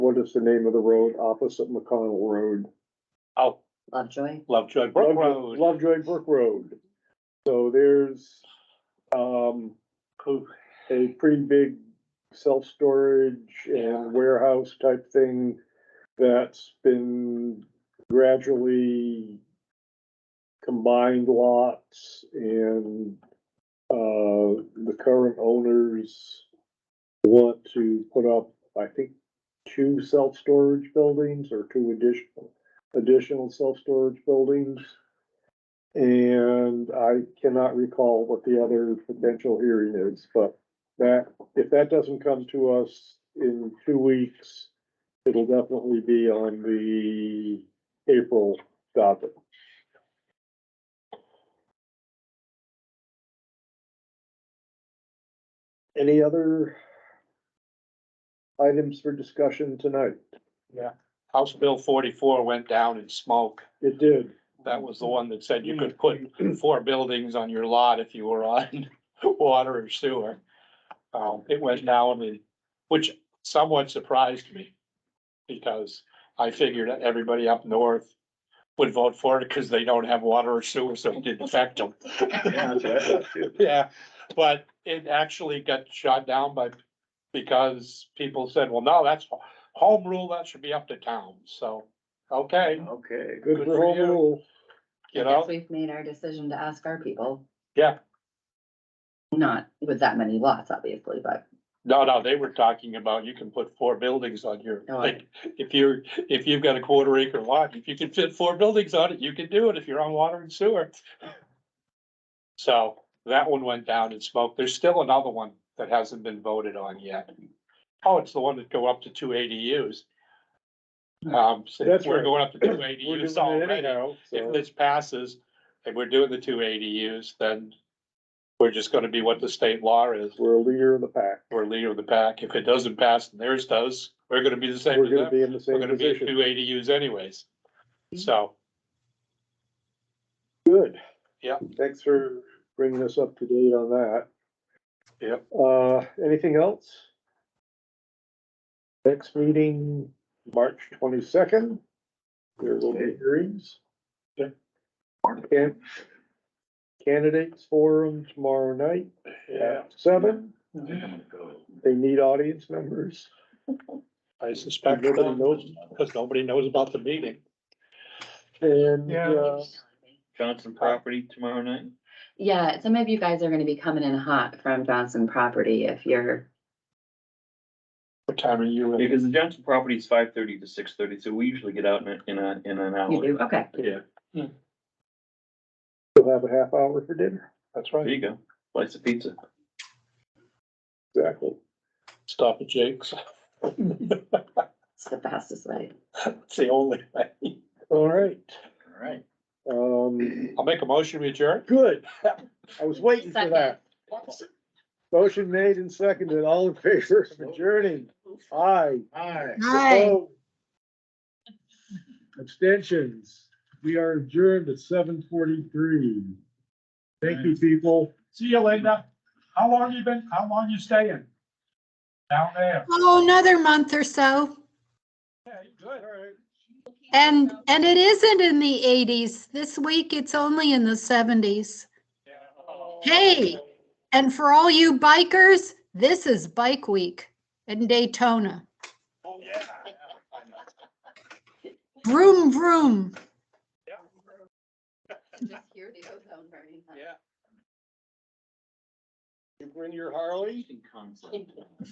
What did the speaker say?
what is the name of the road opposite McConnell Road? Oh, Lovejoy, Lovejoy Brook Lovejoy- Road. Lovejoy Brook Road. So there's, um, Who- a pretty big self-storage Yeah. and warehouse type thing that's been gradually combined lots and, uh, the current owners want to put up, I think, two self-storage buildings or two additional, additional self-storage buildings. And I cannot recall what the other potential hearing is, but that, if that doesn't come to us in two weeks, it'll definitely be on the April docket. Any other items for discussion tonight? House Bill forty-four went down in smoke. It did. That was the one that said you could put four buildings on your lot if you were on water or sewer. Um, it went down, and- which somewhat surprised me. Because I figured that everybody up north would vote for it because they don't have water or sewer, so it didn't affect them. Yeah, but it actually got shot down by, because people said, well, no, that's home rule, that should be up to town, so, okay, Okay. Good Good for for home you. rule. you I know? guess we've made our decision to ask our people. Yeah. Not with that many lots, obviously, but No, no, they were talking about you can put four buildings on your, Oh, I- like, if you're, if you've got a quarter acre lot, if you can fit four buildings on it, you can do it if you're on water and sewer. So that one went down in smoke. There's still another one that hasn't been voted on yet. Oh, it's the one that go up to two ADUs. Um, so That's we're right. going up to two We're doing ADUs it already. anyhow, If so- this passes and we're doing the two ADUs, then we're just gonna be what the state law is We're a leader of the pack. we're leader of the pack. If it doesn't pass and theirs does, we're gonna be the same We're as gonna them. be in the We're same gonna be at two position. ADUs anyways. So, Good. Yeah. Thanks for bringing us up to date on that. Yep. Uh, anything else? Next meeting, March twenty-second. There will be hearings. Yeah. Can- Candidates forum tomorrow night yeah, Mm-hmm. at seven. Well, They need audience members. I suspect Nobody nobody knows. knows, because nobody knows about the meeting. And, Yeah. uh, Johnson property tomorrow night? yeah, some of you guys are gonna be coming in hot from Johnson property if you're, What time are you? in? Because the Johnson property is five thirty to six thirty, so we usually get out in, a- in a, in an you hour. do, okay. Yeah, we'll have a half hour for dinner. That's there right. you go. Slice of pizza. Exactly. Stop at Jake's. It's the fastest way. It's the only way. All right, All right. um, I'll make a motion, we adjourn. good. I was waiting for that. Motion made and seconded, all in favor of adjourning, aye. Aye. Opposed? Abstentions, we are adjourned at seven forty-three. Thank you, people. See you later. How long you been, how long you staying? Down there? Oh, another month or so. Yeah, you good. And, and it isn't in the eighties. This week, it's only in the seventies. Hey, and for all you bikers, this is Bike Week in Daytona. Oh, Vroom, vroom. Just hear the ozone burning. Yeah. You bring your Harley? Interesting concept.